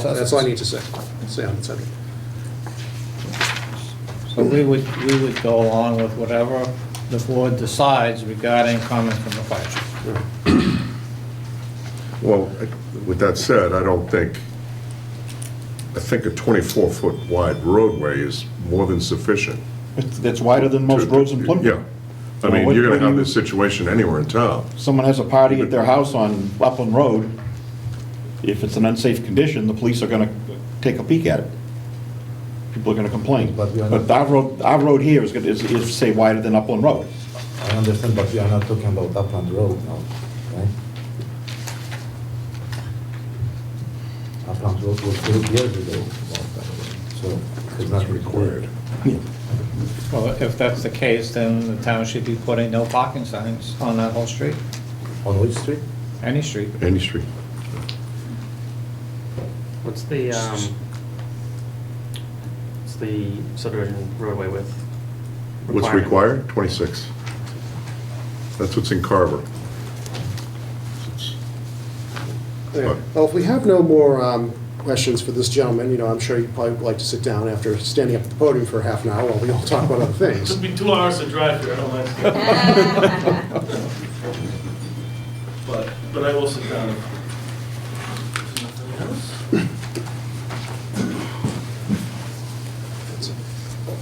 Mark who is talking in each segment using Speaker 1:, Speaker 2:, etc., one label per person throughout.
Speaker 1: That's all I need to say, say on the subject.
Speaker 2: So we would, we would go along with whatever the board decides regarding comments from the fire chief.
Speaker 3: Well, with that said, I don't think, I think a 24-foot wide roadway is more than sufficient.
Speaker 4: It's- That's wider than most roads in Plymouth.
Speaker 3: Yeah. I mean, you're going to have this situation anywhere in town.
Speaker 4: Someone has a party at their house on Upland Road, if it's an unsafe condition, the police are gonna take a peek at it. People are gonna complain.
Speaker 5: But we are
Speaker 4: But
Speaker 5: not-
Speaker 4: our road, our road here is, gonna- is, is say wider than Upland Road.
Speaker 5: I understand, but we are not talking about Upland Road now, right? Upland Road was built years ago, about that road, so it's not required.
Speaker 2: Well, if that's the case, then the town should be putting no parking signs on that whole street,
Speaker 5: On which street?
Speaker 2: any street.
Speaker 3: Any street.
Speaker 6: What's the, um, what's the subdivision roadway width?
Speaker 3: What's
Speaker 6: requirement?
Speaker 3: required? 26. That's what's in Carver. It's-
Speaker 1: Yeah. Well, if we have no more um, questions for this gentleman, you know, I'm sure you'd probably like to sit down after standing up at the podium for half an hour while we all talk about other things.
Speaker 7: Took me two hours to drive here, I don't like it. But, but I will sit down. Nothing else?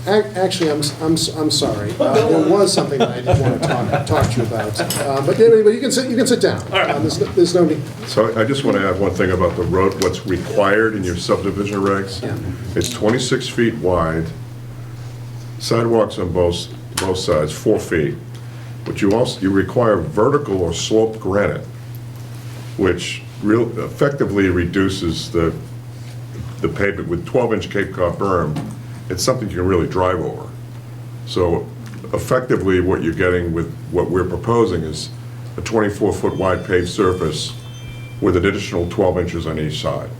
Speaker 1: Ac- Actually, I'm, s- I'm, s- I'm sorry. Uh, There was something that I did want to talk, talk to you about. Uh, But anyway, you can sit, you can sit down.
Speaker 7: right.
Speaker 1: Um, There's no- there's no need.
Speaker 3: So I just want to add one thing about the road, what's required in your subdivision regs.
Speaker 1: Yeah.
Speaker 3: It's 26 feet wide, sidewalks on both, both sides, four feet. But you also, you require vertical or sloped granite, which real, effectively reduces the, the pavement with 12-inch Cape Cod berm. It's something you can really drive over. So effectively, what you're getting with what we're proposing is a 24-foot wide paved surface with an additional 12 inches on each side.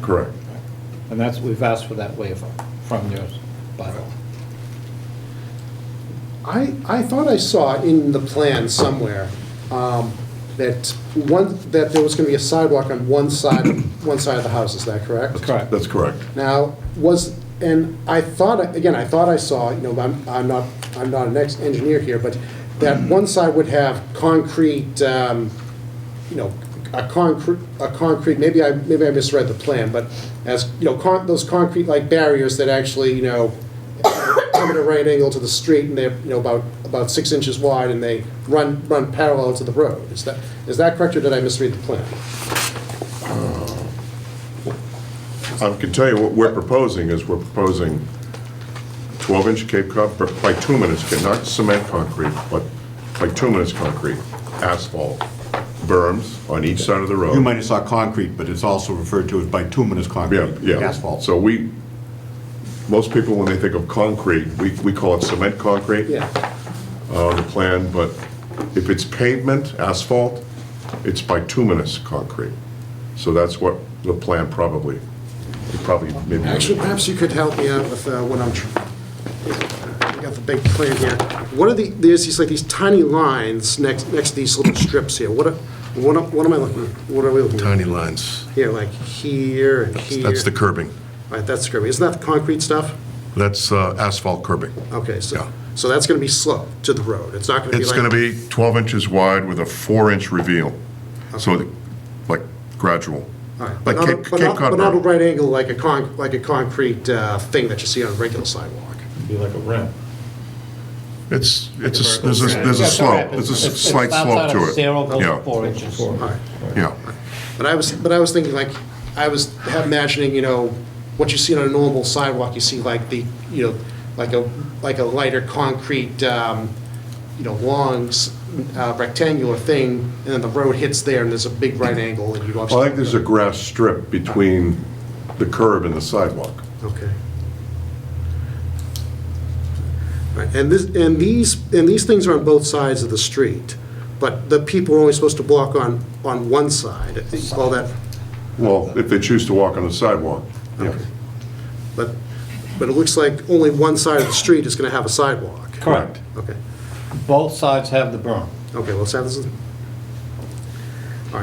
Speaker 3: Correct.
Speaker 2: And that's, we've asked for that waiver from your bylaw.
Speaker 1: I, I thought I saw in the plan somewhere um, that one, that there was going to be a sidewalk on one side, of- one side of the house, is that correct?
Speaker 2: Correct.
Speaker 3: That's correct.
Speaker 1: Now, was, and I thought, again, I thought I saw, you know, I'm, I'm not, I'm not an ex-engineer here, but that one side would have concrete, um, you know, a concrete, a concrete, maybe I, maybe I misread the plan, but as, you know, con, those concrete like barriers that actually, you know, come at a right angle to the street and they're, you know, about, about six inches wide and they run, run parallel to the road. Is that, is that correct or did I misread the plan?
Speaker 3: I can tell you what we're proposing is we're proposing 12-inch Cape Cod ber- bituminous, ca- not cement concrete, but bituminous concrete, asphalt berms on each side of the road.
Speaker 4: You might have saw concrete, but it's also referred to as bituminous
Speaker 3: Yeah,
Speaker 4: concrete,
Speaker 3: yeah.
Speaker 4: asphalt.
Speaker 3: So we, most people, when they think of concrete, we, we call it cement concrete.
Speaker 1: Yeah.
Speaker 3: on uh, the plan, but if it's pavement, asphalt, it's bituminous concrete. So that's what the plan probably, it probably maybe.
Speaker 1: Actually, perhaps you could help me out with uh, what I'm, tr- I got the big plan here. What are the, there's these, like, these tiny lines next, next to these little strips here. What, are- what am- what am I looking, what are we looking? at?
Speaker 8: Tiny lines.
Speaker 1: Here, like here and here.
Speaker 8: That's the curbing.
Speaker 1: All right, that's curvy. Isn't that the concrete stuff?
Speaker 8: That's uh, asphalt curbing.
Speaker 1: Okay,
Speaker 8: Yeah.
Speaker 1: so, so that's going to be sloped to the road. It's not going to be like.
Speaker 8: It's going to be 12 inches wide with a four-inch reveal, so the- like gradual.
Speaker 1: All right, but
Speaker 8: Like
Speaker 1: not a-
Speaker 8: Cape
Speaker 1: but
Speaker 8: Cape
Speaker 1: not,
Speaker 8: Cod
Speaker 1: but not a
Speaker 8: berm.
Speaker 1: right angle like a con, like a concrete uh, thing that you see on a regular sidewalk.
Speaker 7: Be like a ramp.
Speaker 8: It's, it's, a s- there's a, there's a
Speaker 2: That's all right.
Speaker 8: slope, there's a
Speaker 2: It's-
Speaker 8: s- slight
Speaker 2: it's outside
Speaker 8: slope
Speaker 2: of
Speaker 8: to it.
Speaker 2: Zero
Speaker 8: Yeah,
Speaker 2: goes four inches.
Speaker 1: All right.
Speaker 8: yeah.
Speaker 1: But I was, but I was thinking like, I was imagining, you know, what you see on a normal sidewalk, you see like the, you know, like a, like a lighter concrete, um, you know, long s- uh, rectangular thing, and then the road hits there and there's a big right angle and you don't.
Speaker 3: I think there's a grass strip between the curb and the sidewalk.
Speaker 1: Okay. All right, And this, and these, and these things are on both sides of the street, but the people are only supposed to block on, on one side, all that,
Speaker 3: Well, if they choose to walk on the sidewalk. yeah.
Speaker 1: But, but it looks like only one side of the street is going to have a sidewalk.
Speaker 2: Correct.
Speaker 1: Okay,
Speaker 2: Both sides have the berm.
Speaker 1: okay, well, so this is,